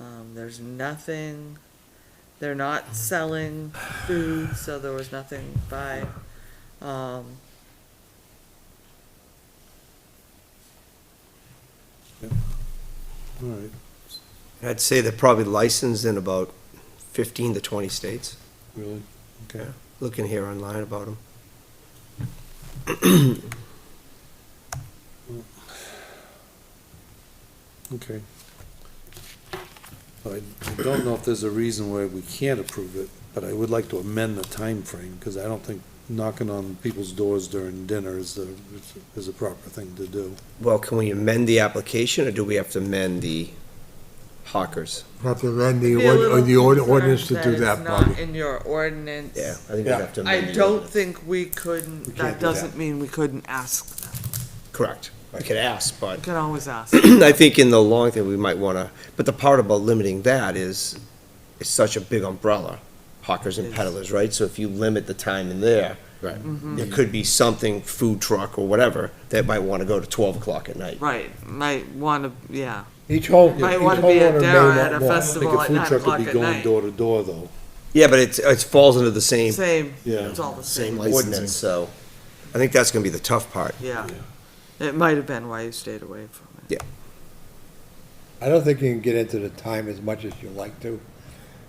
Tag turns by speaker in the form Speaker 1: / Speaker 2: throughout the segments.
Speaker 1: Um, there's nothing, they're not selling food, so there was nothing by, um,
Speaker 2: All right,
Speaker 3: I'd say they're probably licensed in about fifteen to twenty states.
Speaker 2: really, okay.
Speaker 3: Looking here online about them.
Speaker 2: Okay. I I don't know if there's a reason why we can't approve it, but I would like to amend the time frame because I don't think knocking on people's doors during dinner is the, is a proper thing to do.
Speaker 3: Well, can we amend the application or do we have to amend the hawkers?
Speaker 4: Have to amend
Speaker 1: be
Speaker 4: the
Speaker 1: a
Speaker 4: ord-
Speaker 1: little
Speaker 4: or the ord-
Speaker 1: concerned
Speaker 4: ordinance to do
Speaker 1: it's
Speaker 4: that,
Speaker 1: not
Speaker 4: Bobby.
Speaker 1: In your ordinance.
Speaker 3: I think we
Speaker 2: Yeah.
Speaker 3: have to
Speaker 1: I
Speaker 3: amend. the
Speaker 1: don't
Speaker 3: ordinance.
Speaker 1: think we couldn't,
Speaker 2: can't
Speaker 1: that
Speaker 2: do that.
Speaker 1: doesn't mean we couldn't ask, them.
Speaker 3: Correct. I could ask, but
Speaker 1: we can always ask.
Speaker 3: I think in the long thing, we might want to, but the part about limiting that is, it's such a big umbrella, hawkers and
Speaker 1: Yes.
Speaker 3: peddlers, right? So if you limit the time in there. Right. There could be something, food truck or whatever, that might want to go to twelve o'clock at night.
Speaker 1: Right, might wanna, yeah,
Speaker 4: Each home,
Speaker 1: Might each wanna be a homeowner may dare not at a want- festival.
Speaker 2: I think a
Speaker 1: at
Speaker 2: food
Speaker 1: nine
Speaker 2: truck would be
Speaker 1: o'clock at
Speaker 2: going
Speaker 1: night.
Speaker 2: door to door though.
Speaker 3: Yeah, but it's, it falls under the same,
Speaker 1: same,
Speaker 2: Yeah.
Speaker 1: it's all the
Speaker 3: same
Speaker 1: same,
Speaker 3: ordinance, so I think that's going to be the tough part.
Speaker 1: yeah. It might have been why you stayed away from it.
Speaker 4: I don't think you can get into the time as much as you like to.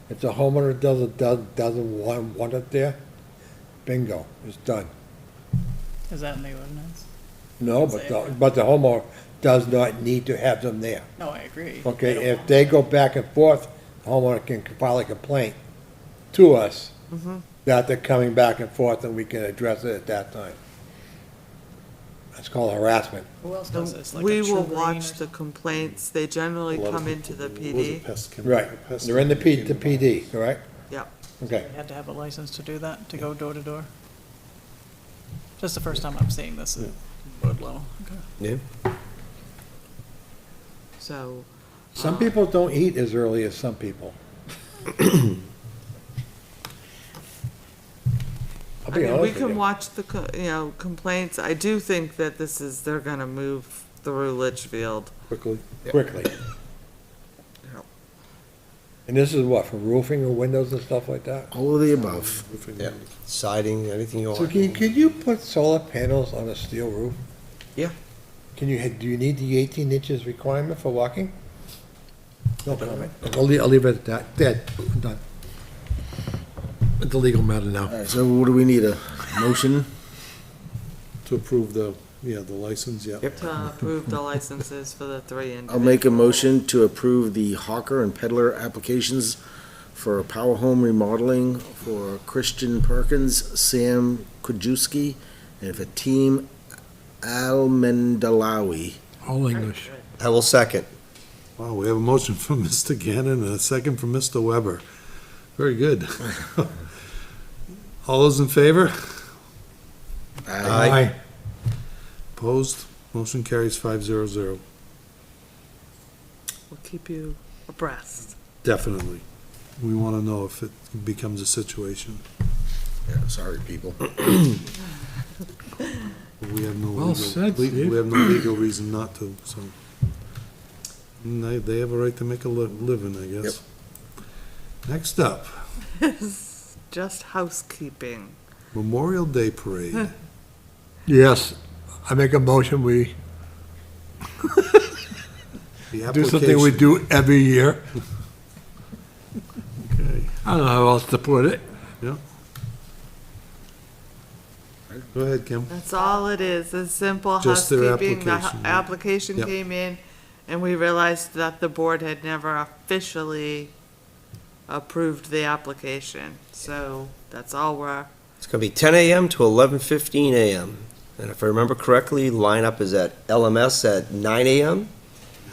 Speaker 4: If the homeowner doesn't, does- doesn't want, want it there, bingo, it's done.
Speaker 5: Is that in the ordinance?
Speaker 4: No, but, the- but the homeowner does not need to have them there.
Speaker 5: No, I agree.
Speaker 4: Okay, if they go back and forth, the homeowner can file a complaint to us that they're coming back and forth and we can address it at that time. That's called harassment.
Speaker 5: Who else does this? Like a
Speaker 1: We will
Speaker 5: Trugreen or
Speaker 1: watch the complaints, they generally
Speaker 2: A lot of
Speaker 1: come into the
Speaker 2: people- what was
Speaker 1: PD,
Speaker 2: it, pest control-
Speaker 4: Right,
Speaker 2: pest
Speaker 4: they're in the P, the
Speaker 2: control.
Speaker 4: PD, correct?
Speaker 1: yep.
Speaker 4: Okay.
Speaker 5: something? You had to have a license to do that, to go door to door? Just the first time I'm seeing this at road level. Okay.
Speaker 3: Yeah.
Speaker 1: So,
Speaker 4: Some people don't eat as early as some people. I'll
Speaker 1: I
Speaker 4: be
Speaker 1: mean, we
Speaker 4: honest with
Speaker 1: can
Speaker 4: you.
Speaker 1: watch the, co- you know, complaints, I do think that this is, they're gonna move through Litchfield.
Speaker 2: Quickly.
Speaker 4: Quickly.
Speaker 1: Yep.
Speaker 4: And this is what, for roofing or windows and stuff like that?
Speaker 3: All of the above.
Speaker 2: Roofing.
Speaker 3: Yeah, siding, anything you
Speaker 4: So
Speaker 3: want.
Speaker 4: can, could you put solar panels on a steel roof?
Speaker 3: Yeah.
Speaker 4: Can you, do you need the eighteen inches requirement for walking? No comment. I'll leave, I'll leave it at that. Dead, done. It's a legal matter now.
Speaker 6: All right, so what do we need, a motion?
Speaker 2: To approve the, yeah, the license, yeah.
Speaker 1: to approve the licenses for the three individuals.
Speaker 6: I'll make a motion to approve the hawker and peddler applications for Power Home Remodeling for Christian Perkins, Sam Kujewski, and Fatim Almendalawi.
Speaker 4: All English.
Speaker 3: I will second.
Speaker 2: Wow, we have a motion from Mr. Gannon and a second from Mr. Weber. Very good. All those in favor?
Speaker 3: Aye.
Speaker 2: Opposed? Motion carries five zero zero.
Speaker 1: We'll keep you abreast.
Speaker 2: Definitely. We want to know if it becomes a situation.
Speaker 6: Yeah, sorry, people.
Speaker 2: We have no
Speaker 4: Well
Speaker 2: legal,
Speaker 4: said,
Speaker 2: we-
Speaker 4: Steve.
Speaker 2: we have no legal reason not to, so. And They, they have a right to make a li- living, I guess. Next up,
Speaker 1: Just housekeeping.
Speaker 2: Memorial Day Parade.
Speaker 4: Yes, I make a motion, we
Speaker 2: The
Speaker 4: do something we
Speaker 2: application-
Speaker 4: do every year.
Speaker 2: Okay.
Speaker 4: I don't know how else to put it.
Speaker 2: Go ahead, Kim.
Speaker 1: That's all it is, a simple
Speaker 2: Just their
Speaker 1: housekeeping. The hu-
Speaker 2: application, yeah.
Speaker 1: application
Speaker 2: Yep.
Speaker 1: came in, and we realized that the board had never officially approved the application. So that's all we're,
Speaker 3: It's gonna be ten AM to eleven fifteen AM. And if I remember correctly, lineup is at LMS at nine AM.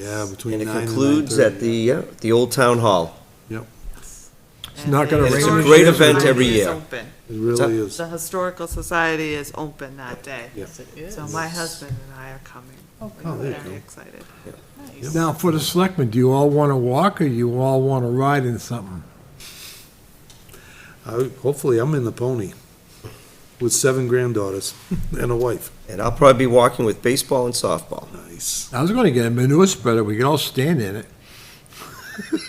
Speaker 2: Yeah, between
Speaker 3: And it
Speaker 2: nine and
Speaker 3: concludes at
Speaker 2: 9:30.
Speaker 3: the, yeah, the Old Town Hall.
Speaker 1: It's
Speaker 4: not gonna
Speaker 3: rain It's a great event every year.
Speaker 2: It really is.
Speaker 1: The Historical Society is open that day.
Speaker 5: Yes, it is.
Speaker 1: So my husband and I are coming.
Speaker 2: Oh, there you
Speaker 1: Very
Speaker 2: go.
Speaker 1: excited.
Speaker 5: Nice.
Speaker 4: Now, for the selectmen, do you all want to walk or you all want to ride in something?
Speaker 2: I- Hopefully, I'm in the pony with seven granddaughters and a wife.
Speaker 3: And I'll probably be walking with baseball and softball.
Speaker 2: Nice.
Speaker 4: I was going to get a manure spreader, we could all stand in it.